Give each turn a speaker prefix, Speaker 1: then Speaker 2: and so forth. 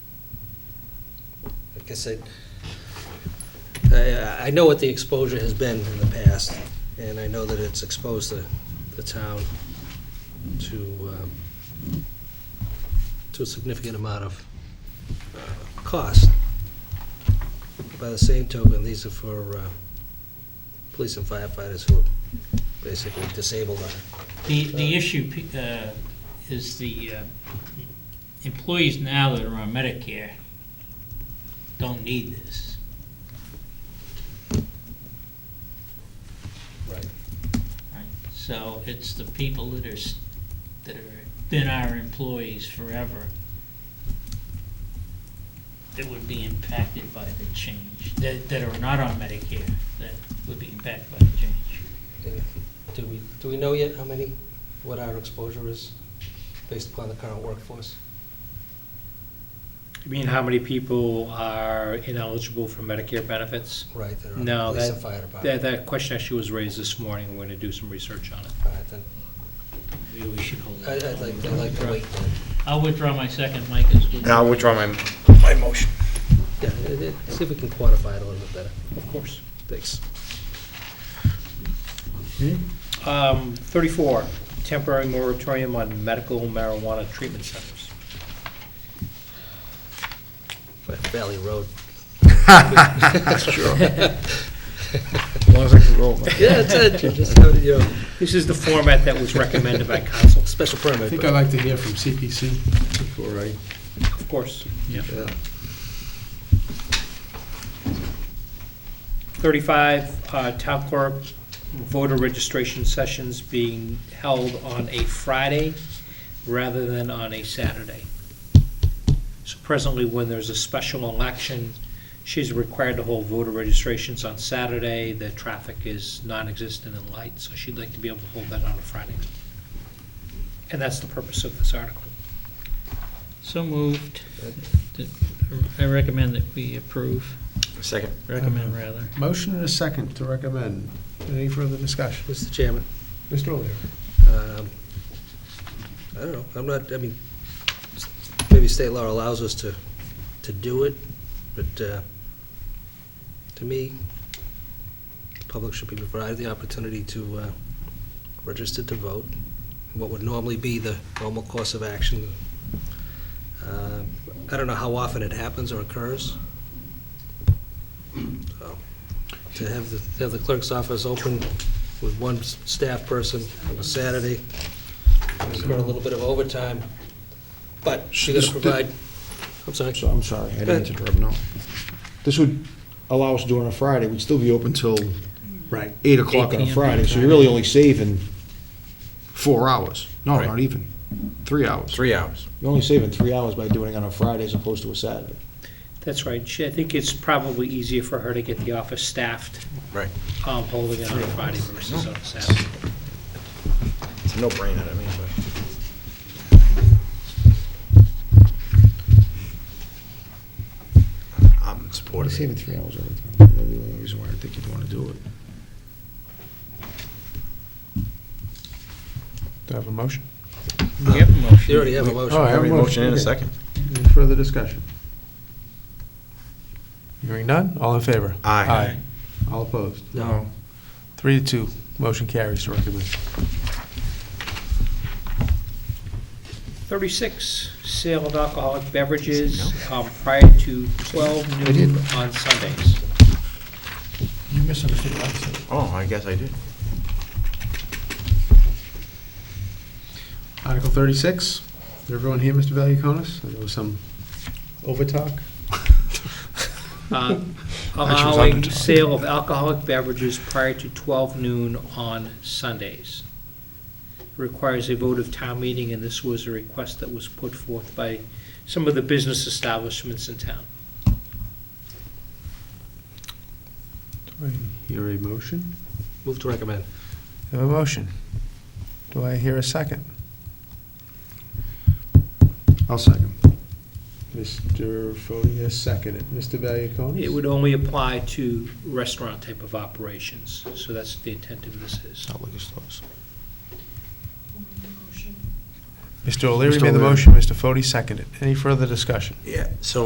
Speaker 1: I said, I, I know what the exposure has been in the past, and I know that it's exposed the, the town to, um, to a significant amount of uh, cost. By the same token, these are for uh, police and firefighters who are basically disabled on it.
Speaker 2: The, the issue pe- uh, is the uh, employees now that are on Medicare don't need this.
Speaker 1: Right.
Speaker 2: right? So it's the people that are, s- that are, been our employees forever that would be impacted by the change, that, that are not on Medicare, that would be impacted by the change.
Speaker 1: Do we, do we know yet how many, what our exposure is based upon the current workforce?
Speaker 3: You mean how many people are ineligible for Medicare benefits?
Speaker 1: Right, that are on
Speaker 3: No,
Speaker 1: the police
Speaker 3: that-
Speaker 1: and fire department?
Speaker 3: That, that question actually was raised this morning, we're gonna do some research on it.
Speaker 1: All right, then,
Speaker 2: Maybe we should hold
Speaker 1: I-
Speaker 2: that.
Speaker 1: I'd like, I'd like to wait. then.
Speaker 2: I'll withdraw my second, Mike is with.
Speaker 4: I'll withdraw my, my motion.
Speaker 1: Yeah, it- it- see if we can quantify it a little bit better.
Speaker 3: Of course.
Speaker 1: Thanks.
Speaker 3: Um, thirty-four, temporary moratorium on medical marijuana treatment centers.
Speaker 1: Valley Road.
Speaker 4: Sure. As long as I can roll. I
Speaker 1: Yeah, it's, it. just, have it, you know,
Speaker 3: This is the format that was recommended by council,
Speaker 1: special permit.
Speaker 5: think
Speaker 1: but-
Speaker 5: I'd like to hear from CPC before I,
Speaker 3: of course.
Speaker 5: yeah.
Speaker 3: Thirty-five, uh, town clerk voter registration sessions being held on a Friday rather than on a Saturday. So presently, when there's a special election, she's required to hold voter registrations on Saturday. The traffic is non-existent and light, so she'd like to be able to hold that on a Friday. And that's the purpose of this article.
Speaker 2: So moved. I recommend that we approve,
Speaker 4: Second.
Speaker 2: recommend rather.
Speaker 5: Motion and a second to recommend. Any further discussion?
Speaker 1: Mr. Chairman,
Speaker 5: Mr. O'Leary?
Speaker 1: um, I don't know, I'm not, I mean, s- maybe state law allows us to, to do it, but uh, to me, the public should be provided the opportunity to uh, register to vote, what would normally be the normal course of action. Um, I don't know how often it happens or occurs. So, To have the, to have the clerk's office open with one s- staff person on a Saturday, it's got a little bit of overtime, but she got to
Speaker 6: This- this-
Speaker 1: provide, I'm sorry.
Speaker 6: So, I'm sorry,
Speaker 1: Go
Speaker 6: I didn't
Speaker 1: ahead.
Speaker 6: interrupt, no. This would allow us to do it on a Friday, we'd still be open till
Speaker 5: Right.
Speaker 6: eight o'clock on
Speaker 2: 8
Speaker 6: a
Speaker 2: p.m.
Speaker 6: Friday, so you're really only saving four hours. No, not even, three hours.
Speaker 4: Three hours.
Speaker 6: You're only saving three hours by doing it on a Friday as opposed to a Saturday.
Speaker 3: That's right. She, I think it's probably easier for her to get the office staffed.
Speaker 4: Right.
Speaker 3: Um, holding it on a Friday versus on a Saturday.
Speaker 4: It's a no-brainer to me, but. I'm
Speaker 6: You're
Speaker 4: supportive.
Speaker 6: saving three hours every time. That's the only reason why I think you'd want to do it.
Speaker 5: Do I have a motion?
Speaker 2: We have a motion.
Speaker 1: You already have a motion.
Speaker 5: Oh, I have
Speaker 4: Have a motion in a
Speaker 5: okay.
Speaker 4: second.
Speaker 5: Any further discussion? Hearing none, all in favor?
Speaker 4: Aye.
Speaker 5: All opposed?
Speaker 1: No.
Speaker 5: Three to two, motion carries to recommend.
Speaker 3: Thirty-six, sale of alcoholic beverages um, prior to twelve noon on Sundays.
Speaker 5: You misunderstood what I said.
Speaker 4: Oh, I guess I did.
Speaker 5: Article 36, Is everyone here, Mr. Valiakonis? There was some overtalk.
Speaker 3: Uh,
Speaker 5: Actually, it was
Speaker 3: Allowing
Speaker 5: under-
Speaker 3: sale of alcoholic beverages prior to twelve noon on Sundays. Requires a vote of town meeting, and this was a request that was put forth by some of the business establishments in town.
Speaker 5: Do I hear a motion?
Speaker 1: Move to recommend.
Speaker 5: I Have a motion. Do I hear a second?
Speaker 6: I'll second.
Speaker 5: Mr. Foti has seconded. Mr. Valiakonis?
Speaker 3: It would only apply to restaurant type of operations, so that's the intent of this is.
Speaker 6: Not liquor stores.
Speaker 5: Mr. O'Leary
Speaker 6: Mr.
Speaker 5: made the
Speaker 6: O'Leary.
Speaker 5: motion, Mr. Foti seconded. Any further discussion?
Speaker 4: Yeah, so